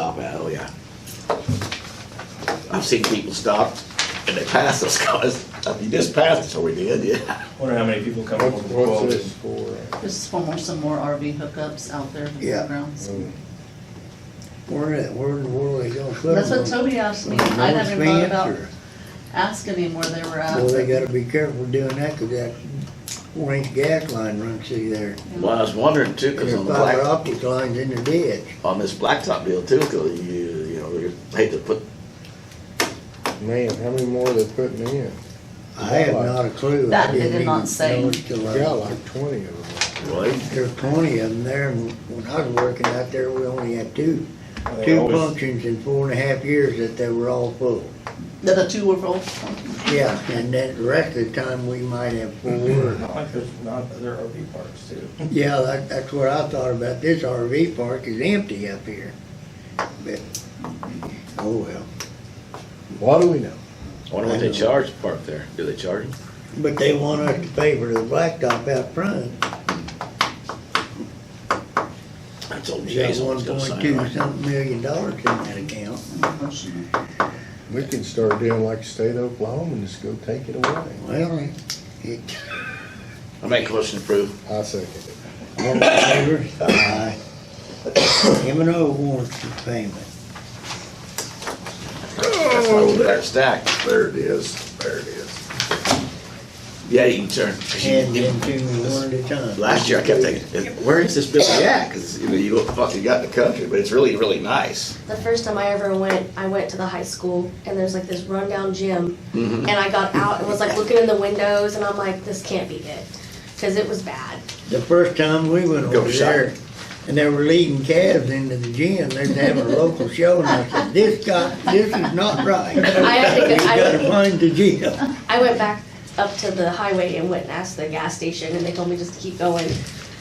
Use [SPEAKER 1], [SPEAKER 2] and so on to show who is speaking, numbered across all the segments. [SPEAKER 1] Oh, I've seen people stop and they pass us, cause, I mean, just passed us, so we did, yeah.
[SPEAKER 2] Wonder how many people come up
[SPEAKER 3] What's
[SPEAKER 2] with
[SPEAKER 3] what's
[SPEAKER 2] quotes.
[SPEAKER 3] this for?
[SPEAKER 4] This is for more, some more RV hookups out there in the
[SPEAKER 5] Yeah.
[SPEAKER 4] fairgrounds.
[SPEAKER 5] Where, where in the world are they gonna put them?
[SPEAKER 4] That's what Toby asked me,
[SPEAKER 5] On
[SPEAKER 4] I haven't
[SPEAKER 5] North
[SPEAKER 4] thought
[SPEAKER 5] Fence
[SPEAKER 4] about uh,
[SPEAKER 5] or-
[SPEAKER 4] asking him where they were
[SPEAKER 5] Well, they
[SPEAKER 4] at.
[SPEAKER 5] gotta be careful doing that, 'cause that four inch gas line runs through there.
[SPEAKER 1] Well, I was wondering too,
[SPEAKER 5] And
[SPEAKER 1] cause
[SPEAKER 5] the
[SPEAKER 1] on the
[SPEAKER 5] fiber
[SPEAKER 1] black,
[SPEAKER 5] optic line's in the ditch.
[SPEAKER 1] on this blacktop deal too, cause you, you know, you hate to put,
[SPEAKER 3] Man, how many more they putting in?
[SPEAKER 5] I have not a clue. I
[SPEAKER 4] That they
[SPEAKER 5] didn't
[SPEAKER 4] did not
[SPEAKER 5] even
[SPEAKER 4] say.
[SPEAKER 5] notice till I-
[SPEAKER 3] We got like twenty of them.
[SPEAKER 1] well,
[SPEAKER 5] There's plenty of them there, and when I was working out there, we only had two,
[SPEAKER 2] They
[SPEAKER 5] two
[SPEAKER 2] always-
[SPEAKER 5] functions in four and a half years that they were all full.
[SPEAKER 4] The, the two were full.
[SPEAKER 5] Yeah, and then the rest of the time, we might have four.
[SPEAKER 2] Not like there's not other RV parks too.
[SPEAKER 5] Yeah, that, that's what I thought about, this RV park is empty up here, but, oh well.
[SPEAKER 3] What do we know?
[SPEAKER 1] I wonder what they charge to park there, do they charge them?
[SPEAKER 5] But they want us to pay for the blacktop out front,
[SPEAKER 1] I told
[SPEAKER 5] they got
[SPEAKER 1] Jason, I
[SPEAKER 5] one
[SPEAKER 1] was gonna
[SPEAKER 5] point
[SPEAKER 1] sign
[SPEAKER 5] two
[SPEAKER 1] right.
[SPEAKER 5] something million dollars in that account.
[SPEAKER 3] We can start doing like the state of Oklahoma and just go take it away.
[SPEAKER 5] Well, it,
[SPEAKER 1] I make a motion to approve,
[SPEAKER 3] I second it.
[SPEAKER 5] all in favor, aye. M and O warrants for payment.
[SPEAKER 1] that's my old back stack, there it is, there it is. Yeah, you can turn.
[SPEAKER 5] And then two one at a time.
[SPEAKER 1] Last year I kept thinking, where is this building at? Because you know, you look fucking got in the country, but it's really, really nice.
[SPEAKER 6] The first time I ever went, I went to the high school and there's like this rundown gym. And
[SPEAKER 1] Mm-hmm.
[SPEAKER 6] I got out and was like looking in the windows and I'm like, this can't be it. Cause it was bad.
[SPEAKER 5] The first time we went
[SPEAKER 1] Go
[SPEAKER 5] over there,
[SPEAKER 1] shopping.
[SPEAKER 5] and they were leading calves into the gym, they was having a local show, and I said, this got, this is not right. We
[SPEAKER 6] I had to go,
[SPEAKER 5] gotta
[SPEAKER 6] I,
[SPEAKER 5] find the gym.
[SPEAKER 6] I went back up to the highway and went and asked the gas station and they told me just to keep going.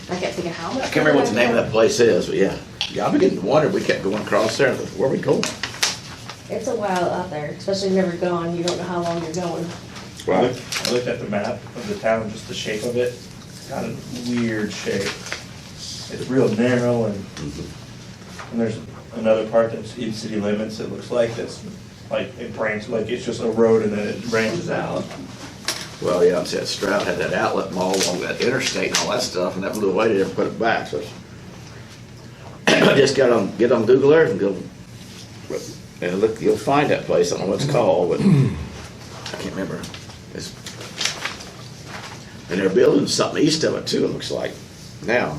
[SPEAKER 6] I kept thinking, how much?
[SPEAKER 1] I can't remember what the name of that place is, but yeah. Yeah, I've been getting to wonder, we kept going across there, like, where we going?
[SPEAKER 6] It's a while out there, especially if you've never gone, you don't know how long you're going.
[SPEAKER 2] I looked- I looked at the map of the town, just the shape of it, it's got a weird shape. It's real narrow and,
[SPEAKER 3] Mm-hmm.
[SPEAKER 2] and there's another part that's in city limits, it looks like, that's like, it branches, like it's just a road and then it branches out.
[SPEAKER 1] Well, yeah, I said Stroud had that outlet mall along that interstate and all that stuff, and that blew away, they never put it back, so. Just got on, get on Google Earth and go, and look, you'll find that place, I don't know what it's called, but I can't remember. It's- And they're building something east of it too, it looks like, now.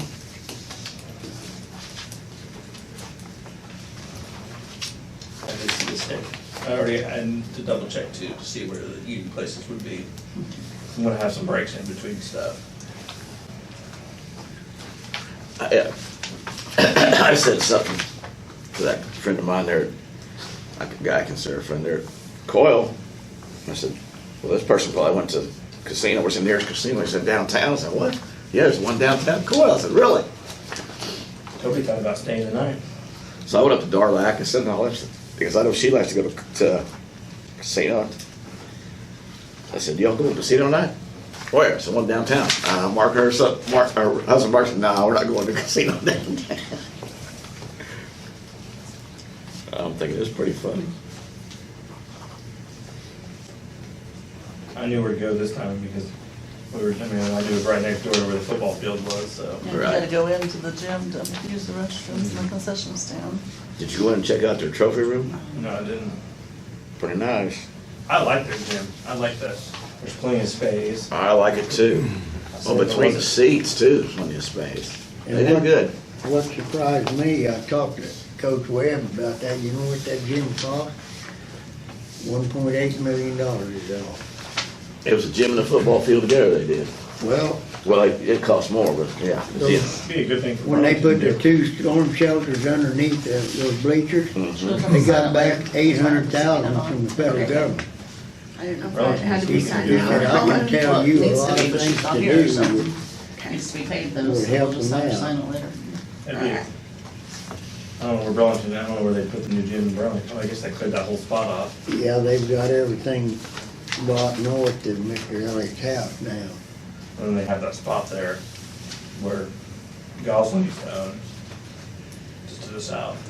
[SPEAKER 2] I did see this thing. I already, and to double check too, to see where the eating places would be. I'm gonna have some breaks in between stuff.
[SPEAKER 1] I I said something to that friend of mine there, a guy I consider a friend there, Coyle. I said, well, this person probably went to casino, where's the nearest casino? He said, downtown. I said, what? Yeah, there's one downtown Coyle. I said, really?
[SPEAKER 2] Toby thought about staying the night.
[SPEAKER 1] So I went up to Darlac and said, no, that's, because I know she likes to go to, to casino. I said, y'all going to casino tonight? Where? I said, one downtown. Uh, Mark her, son- Mark, her husband Mark said, no, we're not going to casino downtown. I'm thinking, it's pretty funny.
[SPEAKER 2] I knew where to go this time because we were, I mean, I knew it was right next door to where the football field was, so.
[SPEAKER 4] And you had to go into the gym to use the restrooms and the concession stand.
[SPEAKER 1] Did you go in and check out their trophy room?
[SPEAKER 2] No, I didn't.
[SPEAKER 1] Pretty nice.
[SPEAKER 2] I like their gym. I like that. There's plenty of space.
[SPEAKER 1] I like it too. Well, between the seats too, plenty of space. They did good.
[SPEAKER 5] What surprised me, I talked to Coach Webb about that, you know what that gym cost? One point eight million dollars is all.
[SPEAKER 1] It was a gym and a football field together they did.
[SPEAKER 5] Well,
[SPEAKER 1] Well, it, it cost more, but yeah. yeah.
[SPEAKER 2] Be a good thing for.
[SPEAKER 5] when they put
[SPEAKER 2] Burlington to
[SPEAKER 5] the
[SPEAKER 2] do.
[SPEAKER 5] two storm shelters underneath the, those bleachers,
[SPEAKER 4] They
[SPEAKER 5] They got back eight hundred thousand from the federal government.
[SPEAKER 7] I didn't know if I had to be
[SPEAKER 2] Relative to
[SPEAKER 7] signed
[SPEAKER 2] do
[SPEAKER 7] out.
[SPEAKER 2] that.
[SPEAKER 5] I can tell you a
[SPEAKER 4] Needs
[SPEAKER 5] lot
[SPEAKER 4] to
[SPEAKER 5] of
[SPEAKER 4] be, but
[SPEAKER 5] things
[SPEAKER 4] she's
[SPEAKER 5] to
[SPEAKER 4] on here or
[SPEAKER 5] do.
[SPEAKER 4] something. Needs to be paid though,
[SPEAKER 5] Would
[SPEAKER 4] so we'll
[SPEAKER 5] help
[SPEAKER 4] just
[SPEAKER 5] them
[SPEAKER 4] have to
[SPEAKER 5] out.
[SPEAKER 4] sign it later.
[SPEAKER 2] That'd be- I don't know where Burlington, I don't know where they put the new gym in Burlington. Oh, I guess they cleared that whole spot off.
[SPEAKER 5] Yeah, they've got everything bought north of Mr. Elliott's house now.
[SPEAKER 2] And then they have that spot there where Gosling used to own, just to the south.